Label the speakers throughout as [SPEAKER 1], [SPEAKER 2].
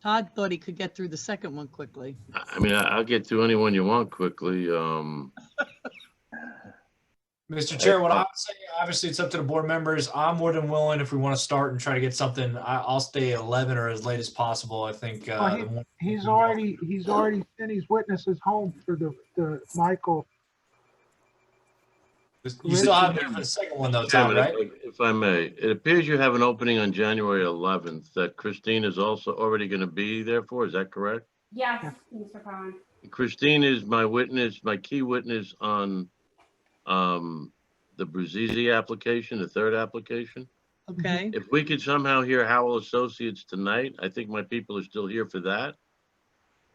[SPEAKER 1] Todd thought he could get through the second one quickly.
[SPEAKER 2] I mean, I- I'll get to anyone you want quickly. Um,
[SPEAKER 3] Mr. Chair, what I would say, obviously, it's up to the board members. I'm more than willing if we want to start and try to get something. I, I'll stay at 11 or as late as possible. I think. uh,
[SPEAKER 4] Well, he-
[SPEAKER 3] the more-
[SPEAKER 4] He's already, he's already sent his witnesses home for the, the Michael.
[SPEAKER 3] You still have it for the second one though, Tom,
[SPEAKER 2] Chairman,
[SPEAKER 3] right?
[SPEAKER 2] if if I may, it appears you have an opening on January 11th that Christine is also already going to be there for. Is that correct?
[SPEAKER 5] Yes, Mr. Collins.
[SPEAKER 2] Christine is my witness, my key witness on um, the Bruzzese application, the third application.
[SPEAKER 1] Okay,
[SPEAKER 2] If we could somehow hear Howell Associates tonight, I think my people are still here for that.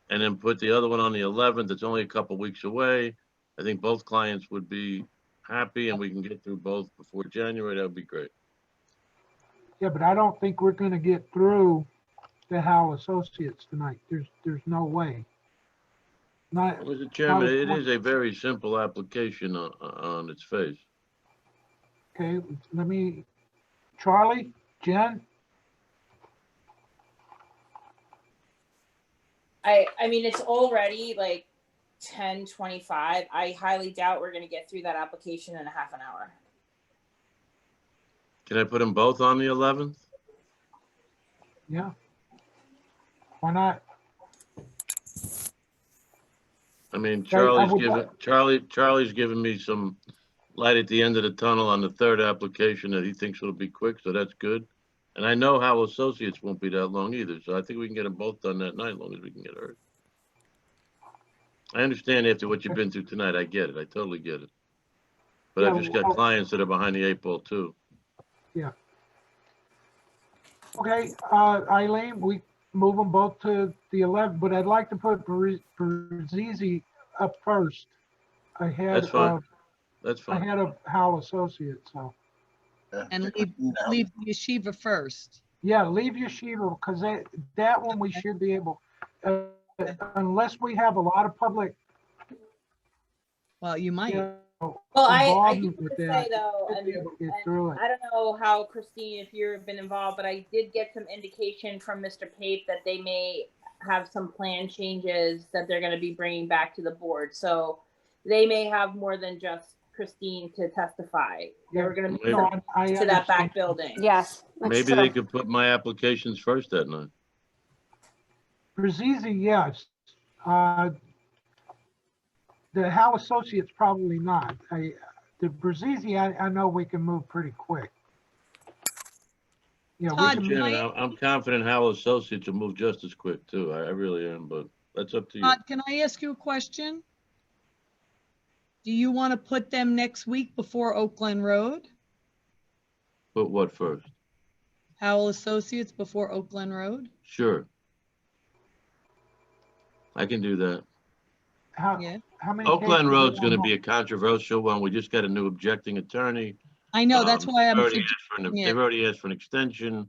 [SPEAKER 2] And then put the other one on the 11th, it's only a couple weeks away. I think both clients would be happy and we can get through both before January, that would be great.
[SPEAKER 4] Yeah, but I don't think we're gonna get through the Howe Associates tonight. There's, there's no way. Not,
[SPEAKER 2] Mr. Chairman, it is a very simple application on, on its face.
[SPEAKER 4] okay, let me, Charlie, Jen,
[SPEAKER 6] I I mean it's already like 10 25. I highly doubt we're gonna get through that application in a half an hour.
[SPEAKER 2] Can I put them both on the 11th?
[SPEAKER 4] yeah. Why not?
[SPEAKER 2] I mean,
[SPEAKER 4] I
[SPEAKER 2] Charlie's
[SPEAKER 4] would
[SPEAKER 2] given, Charlie, Charlie's given me some light at the end of the tunnel on the third application that he thinks will be quick, so that's good. And I know Howell Associates won't be that long either, so I think we can get them both done that night, as long as we can get heard. I understand after what you've been through tonight, I get it, I totally get it. But I've just
[SPEAKER 4] Yeah,
[SPEAKER 2] got
[SPEAKER 4] well-
[SPEAKER 2] clients that are behind the eight ball too.
[SPEAKER 4] Okay, uh, Eileen, we move them both to the 11, but I'd like to put Bru- Bruzzese up first. ahead
[SPEAKER 2] That's fine.
[SPEAKER 4] of
[SPEAKER 2] That's fine.
[SPEAKER 4] Ahead of Howell Associates, so.
[SPEAKER 1] and leave, leave the yeshiva first.
[SPEAKER 4] Yeah, leave Yeshiva, because that, that one we should be able, uh, unless we have a lot of public,
[SPEAKER 1] Well, you
[SPEAKER 4] you
[SPEAKER 1] might.
[SPEAKER 4] know,
[SPEAKER 6] Well, I I
[SPEAKER 4] Involvement
[SPEAKER 6] do want
[SPEAKER 4] with
[SPEAKER 6] to say
[SPEAKER 4] that.
[SPEAKER 6] though,
[SPEAKER 4] should
[SPEAKER 6] and,
[SPEAKER 4] be able to get
[SPEAKER 6] and
[SPEAKER 4] through it.
[SPEAKER 6] I don't know how Christine, if you've been involved, but I did get some indication from Mr. Pape that they may have some plan changes that they're gonna be bringing back to the board. So they may have more than just Christine to testify. They're gonna be
[SPEAKER 2] Maybe.
[SPEAKER 4] No, I- I
[SPEAKER 6] to that
[SPEAKER 4] understand.
[SPEAKER 6] back building.
[SPEAKER 5] Yes. that's
[SPEAKER 2] Maybe they
[SPEAKER 5] true.
[SPEAKER 2] could put my applications first that night.
[SPEAKER 4] Brazzi, yes. Uh, The Hal Associates, probably not. I, the Brazzi, I, I know we can move pretty quick. Yeah, we
[SPEAKER 1] Todd,
[SPEAKER 4] can,
[SPEAKER 2] Chairman,
[SPEAKER 1] Mike-
[SPEAKER 2] I'm I'm confident Howell Associates will move just as quick too. I I really am, but that's up to you.
[SPEAKER 1] Todd, can I ask you a question? Do you want to put them next week before Oakland Road?
[SPEAKER 2] Put what first?
[SPEAKER 1] Howell Associates before Oakland Road?
[SPEAKER 2] Sure. I can do that.
[SPEAKER 4] how,
[SPEAKER 1] Yeah,
[SPEAKER 4] how many?
[SPEAKER 2] Oakland
[SPEAKER 4] cases
[SPEAKER 2] Road's
[SPEAKER 4] we
[SPEAKER 2] gonna
[SPEAKER 4] want?
[SPEAKER 2] be a controversial one. We just got a new objecting attorney.
[SPEAKER 1] I know, that's
[SPEAKER 2] Um,
[SPEAKER 1] why I'm,
[SPEAKER 2] they've already
[SPEAKER 1] sug-
[SPEAKER 2] asked for an-
[SPEAKER 1] yeah.
[SPEAKER 2] They've already asked for an extension.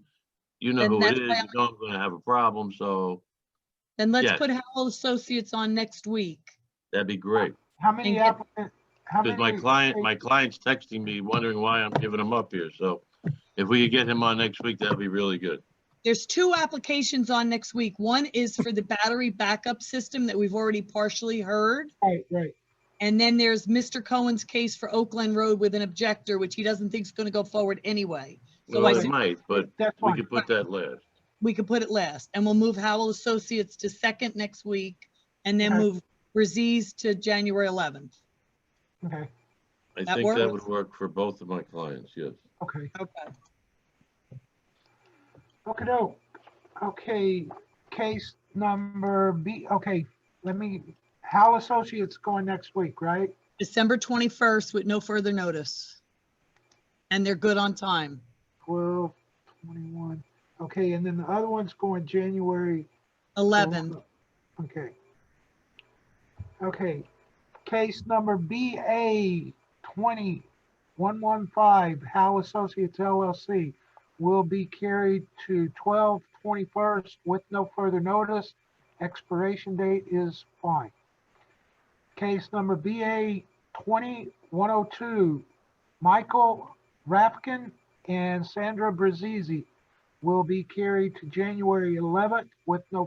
[SPEAKER 2] You know
[SPEAKER 1] Then
[SPEAKER 2] who it
[SPEAKER 1] that's
[SPEAKER 2] is. You
[SPEAKER 1] why I'm-
[SPEAKER 2] know I'm gonna have a problem, so
[SPEAKER 1] then let's
[SPEAKER 2] yeah.
[SPEAKER 1] put Howell Associates on next week.
[SPEAKER 2] that'd be great.
[SPEAKER 4] How many
[SPEAKER 1] and get-
[SPEAKER 4] applicants? How
[SPEAKER 2] Because my
[SPEAKER 4] many?
[SPEAKER 2] client, my client's texting me wondering why I'm giving him up here, so if we could get him on next week, that'd be really good.
[SPEAKER 1] There's two applications on next week. One is for the battery backup system that we've already partially heard.
[SPEAKER 4] Right, right.
[SPEAKER 1] And then there's Mr. Cohen's case for Oakland Road with an objector, which he doesn't think is going to go forward anyway. So
[SPEAKER 2] Well,
[SPEAKER 1] I
[SPEAKER 2] it
[SPEAKER 1] said-
[SPEAKER 2] might, but
[SPEAKER 4] That's
[SPEAKER 2] we
[SPEAKER 4] fine.
[SPEAKER 2] could put that last.
[SPEAKER 1] We could put it last and we'll move Howell Associates to second next week and then
[SPEAKER 4] Okay.
[SPEAKER 1] move Brazee's to January 11th.
[SPEAKER 4] Okay,
[SPEAKER 2] I
[SPEAKER 1] That
[SPEAKER 2] think that
[SPEAKER 1] works.
[SPEAKER 2] would work for both of my clients, yes.
[SPEAKER 4] okay.
[SPEAKER 1] Okay.
[SPEAKER 4] Okey-doke. Okay, case number B, okay, let me, Hal Associates going next week, right?
[SPEAKER 1] December 21st with no further notice. And they're good on time.
[SPEAKER 4] Twelve, twenty-one. Okay, and then the other one's going January.
[SPEAKER 1] 11th.
[SPEAKER 4] Okay. Okay, case number BA twenty one one five, Hal Associates LLC will be carried to twelve twenty-first with no further notice. Expiration date is fine. Case number BA twenty one oh two, Michael Rapkin and Sandra Brazzi will be carried to January eleventh with no